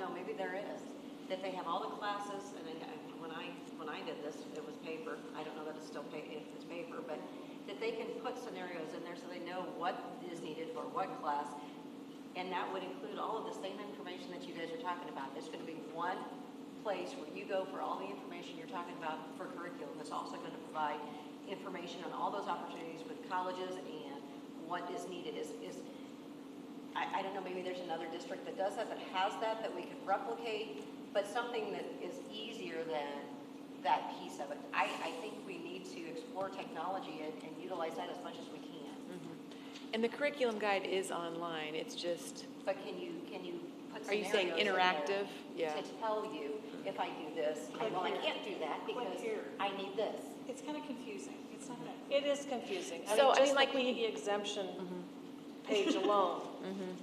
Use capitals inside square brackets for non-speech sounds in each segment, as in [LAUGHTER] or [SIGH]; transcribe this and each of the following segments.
know, maybe there is, that they have all the classes, and I- I- when I, when I did this, it was paper, I don't know that it's still pa, if it's paper, but that they can put scenarios in there so they know what is needed for what class, and that would include all of the same information that you guys are talking about. There's gonna be one place where you go for all the information you're talking about for curriculum. That's also gonna provide information on all those opportunities with colleges and what is needed. Is, is, I, I don't know, maybe there's another district that does that, that has that, that we could replicate, but something that is easier than that piece of it. I, I think we need to explore technology and, and utilize that as much as we can. And the curriculum guide is online, it's just, But can you, can you put scenarios Mm. Are you saying in there interactive? Yeah. To tell you, if I do this, Click well, I here. can't do that Click because here. I need this. It's kind of confusing. It's not that. It is confusing. So, I mean, I mean, just the like, Mm-hmm. PE exemption page [LAUGHS] alone.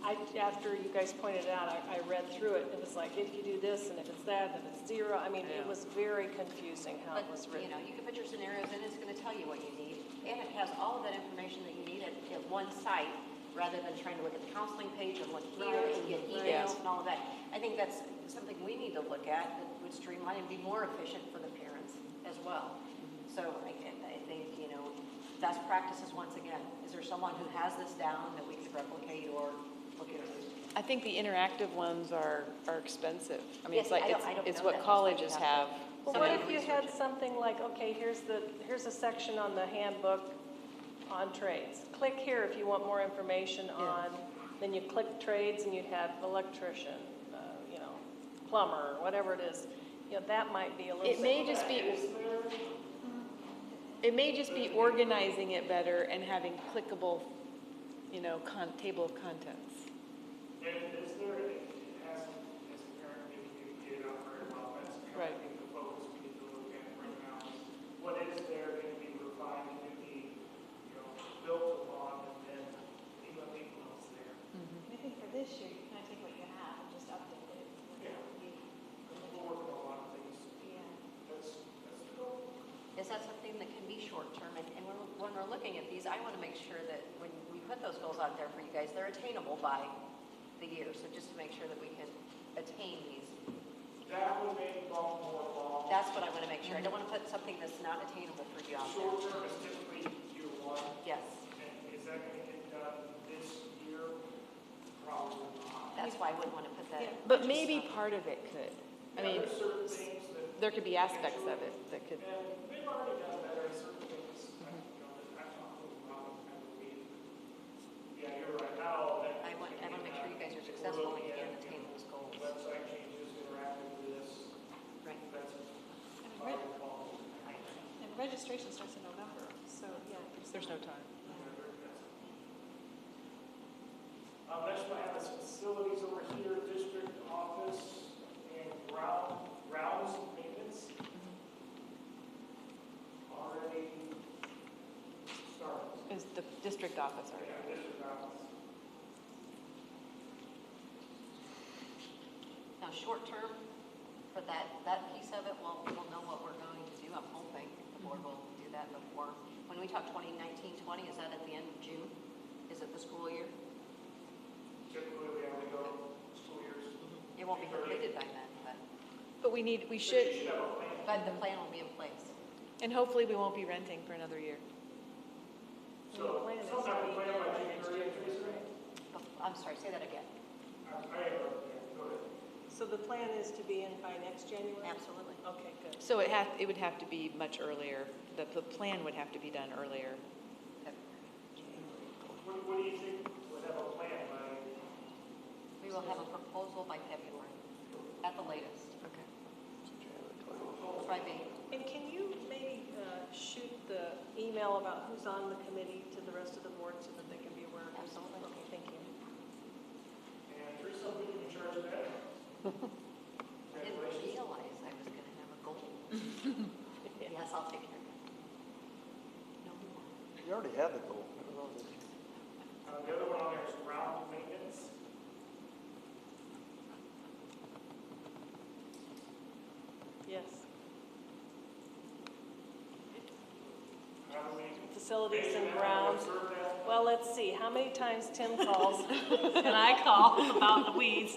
I, after you guys pointed it out, I, I read through it, it was like, if you do this, and if it's that, then it's zero. I mean, it was very confusing how it was But, you written. know, you can put your scenarios in, it's gonna tell you what you need, and it has all of that information that you need at, at one site, rather than trying to look at the counseling page and look here and get emails and all of that. I think that's something we need to look at, that would streamline and be more efficient for the parents as well. So I, I think, you know, best practices, once again, is there someone who has this down that we could replicate or look at? I think the interactive ones are, are expensive. I mean, Yes, it's like, I don't- it's, I don't it's know what that. colleges have. Well, So what many if you had something like, okay, here's the, here's a section on the handbook on trades. Click here if you want more information on, then you click trades and you'd have electrician, uh, you know, plumber, whatever it is. You know, that might be a little bit. It may just be, it may just be organizing it better and having clickable, you know, con, table of contents. And is there, it hasn't, as a parent, maybe you did it out very well, that's kind Right. of, I think, the focus we need to look at right now. is What is there going to be refined, going to be, you know, built upon, and then, you know, people else there? I think for this year, you kind of take what you have and just update it. Yeah. Because we're working on a lot of things, Yeah. that's, that's the goal. Is that something that can be short-term? And and when when we're looking at these, I want to make sure that when we put those goals out there for you guys, they're attainable by the year. So just to make sure that we can attain these, That would make Baltimore law. that's what I want to make sure. I don't want to put something that's not attainable for you out Short there. term is typically year one, Yes, and is that going to get done this year? Probably not. that's why I wouldn't want to put that. But maybe part of it could. I Yeah, mean, There's certain things that. there could be aspects of it that could, And they've already done better in certain things, I you know, that I'm not moving on with kind of lead. Yeah, you're right, not all that. I want, I want to make sure you guys are successful and can attain those goals. Website changes, interactive with this, Right. that's And probably reg- all. And registration starts in November, so, yeah. there's no time. Um, next one, I have is facilities over here, district office and ground, grounds maintenance. Already started. Is the district office Yeah, uh, already? district office. Now, short-term, for that, that piece of it, we'll, we'll know what we're going to do, I'm hoping. The board will do that before, when we talk 2019, 20, is that at the end of June? Is it the school year? Typically, we have to go school years. It won't be completed by then, but, But we need, we But you should, have a plan. but the plan will be in place. and hopefully we won't be renting for another year. So, plan is sometime we to be plan by done by June next 30th, Teresa. Bef- I'm sorry, say that again. I, I have a plan, go ahead. So the plan is to be in by next January? Absolutely. Okay, good. So it has, it would have to be much earlier, the, the plan would have to be done earlier. What, what do you think, would have a plan by? We will have a proposal by February, at the latest. Okay. Probably, And can you maybe uh, shoot the email about who's on the committee to the rest of the board so that they can be aware of this? Absolutely. Okay, thank you. And there's something in charge of that. I didn't Congratulations. realize I was gonna have a goal. Yes, I'll take care of it. No more. You already have the goal. Uh, the other one on there is ground maintenance. Yes. How do we? Facilities and grounds. Observe that. Well, let's see, how many times Tim calls and I call about the weeds?